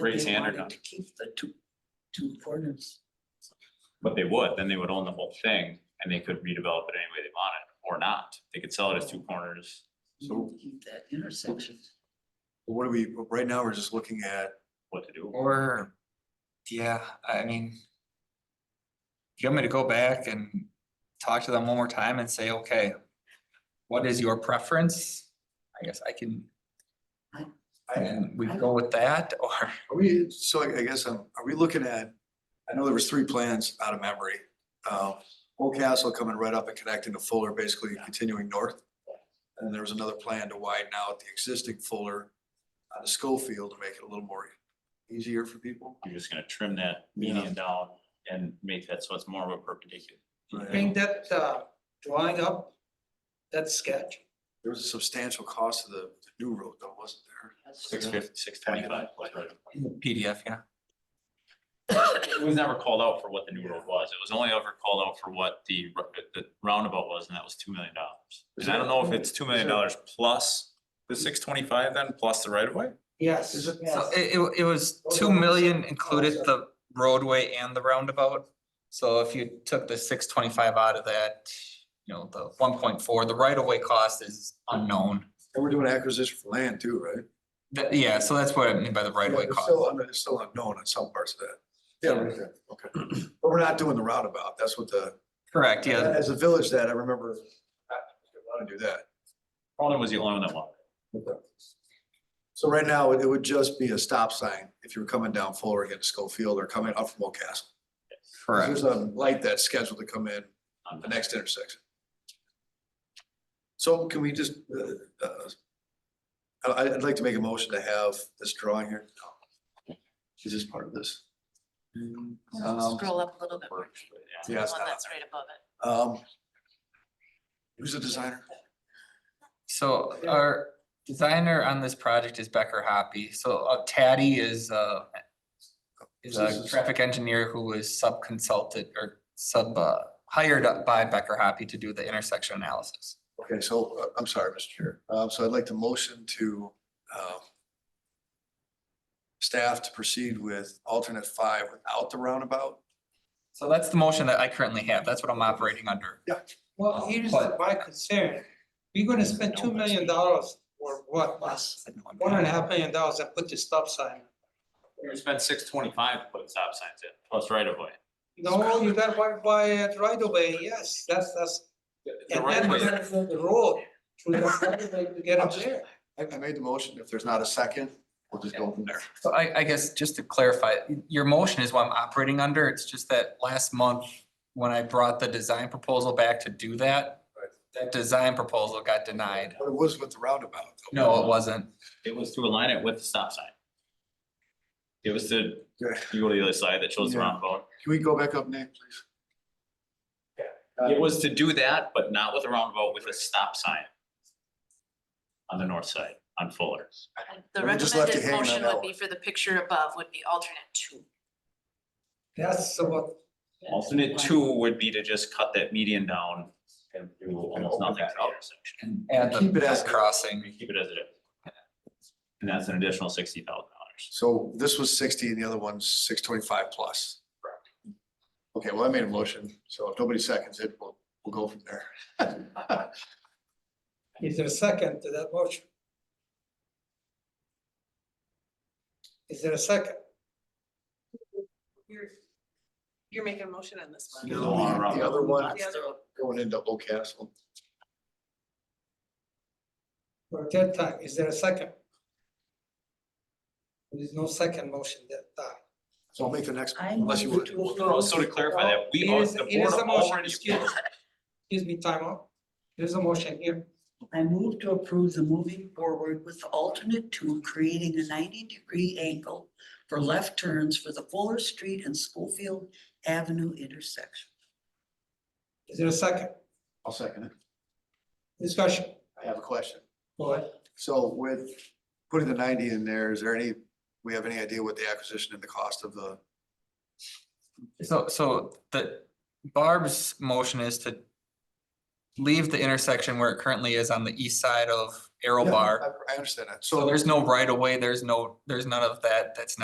raise hand or wanted not, To keep the two, two corners. but they would, then they would own the whole thing and they could redevelop it any way they wanted or not. They could sell it as two corners. You So- need to Keep that intersection. What do we, right now, we're just looking at, What to do? Or, yeah, I mean. You want me to go back and talk to them one more time and say, okay, what is your preference? I guess I can, I, and we go with that, or, are we, so I I guess, um, are we looking at, I know there was three plans out of memory. Uh, Old Castle coming right up and connecting to Fuller, basically continuing north. And there was another plan to widen out the existing Fuller out of Schofield to make it a little more easier for people. You're just gonna trim that Yeah. median down and make that so it's more of a perpendicular. Right. Bring that uh, drawing up, that sketch. There was a substantial cost to the the new road though, wasn't there? Six fifty, six twenty-five. PDF, yeah. It was never called out for what the new road was. It was only ever called out for what the, ru- the roundabout was, and that was two million dollars. Is And I don't know if that- it's two million dollars plus the six twenty-five then, plus the right of way? Yes. Is it- So yes. it, it, it was Those two are the million same included costs. the roadway and the roundabout. So if you took the six twenty-five out of that, you know, the one point four, the right of way cost is unknown. And we're doing acquisition for land too, right? That- yeah, so that's what I mean by the right of way Yeah, it's cost. Still, under- it's still unknown in some parts of that. Yeah, right there. Okay. But we're not doing the roundabout. That's what the, Correct, yeah, as a village that I remember, I want to do that. Cronin was the only one that wanted. So right now, it would just be a stop sign if you were coming down Fuller against Schofield or coming up from Old Castle. correct. There's a light that's scheduled to come in it. Um, the next intersection. So can we just, uh, uh, I, I'd like to make a motion to have this drawing here. Is this part of this? Um, Scroll up a little bit more. Works, but yeah. The Yeah, one it's not- that's right above it. Um. Who's the designer? So our designer on this project is Becker Hoppy, so uh, Taddy is uh. Is This a is- traffic engineer who was sub-consulted or sub uh, hired by Becker Hoppy to do the intersection analysis. Okay, so uh, I'm sorry, Mr. Chair. Uh, so I'd like to motion to, um, staff to proceed with alternate five without the roundabout. So that's the motion that I currently have. That's what I'm operating under. Well, here's my concern. We're gonna spend two million dollars or what, Plus, one and a half million dollars and put the stop sign. We would spend six twenty-five to put stop signs in, plus right of way. No, you gotta buy, buy it right away, yes, that's, that's. The And right then of way- we have the road through the right of way to get up there. I, I made the motion. If there's not a second, we'll just go from there. So I, I guess just to clarify, your motion is what I'm operating under. It's just that last month, when I brought the design proposal back to do that, Right. that design proposal got denied. But it was with the roundabout. No, it wasn't. It was to align it with the stop sign. It was to, Okay. you go to the other side that shows the Yeah. roundabout. Can we go back up, Nick, please? It was to do that, but not with a roundabout, with a stop sign. On the north side, on Fuller. And The We just left you recommended hanging on motion that would be for the picture above would be alternate two. That's what, Alternate two would be to just cut that median down and do almost nothing to the intersection. And add Keep it as- the crossing. We keep it as it is. And that's an additional sixty thousand dollars. So this was sixty and the other one's six twenty-five plus. Correct. Okay, well, I made a motion, so if nobody seconds it, we'll, we'll go from there. is there a second to that motion? Is there a second? You're, you're making a motion on this The other one going into Old Castle. For a third time, is there a second? There is no second motion that time. So I'll make the next, I unless you move want. to So to clarify that, we, It are- is- the It is board a motion, already. excuse, excuse me, time out. There's a motion here. I move to approve the moving forward with the alternate two, creating a ninety-degree angle for left turns for the Fuller Street and Schofield Avenue intersection. Is there a second I'll second it. discussion? I have a question. Go ahead. So with putting the ninety in there, is there any, we have any idea what the acquisition and the cost of the? So, so the Barb's motion is to leave the intersection where it currently is on the east side of Arrow Bar. I I understand that. So there's no right of way, there's no, there's none of that, that's not.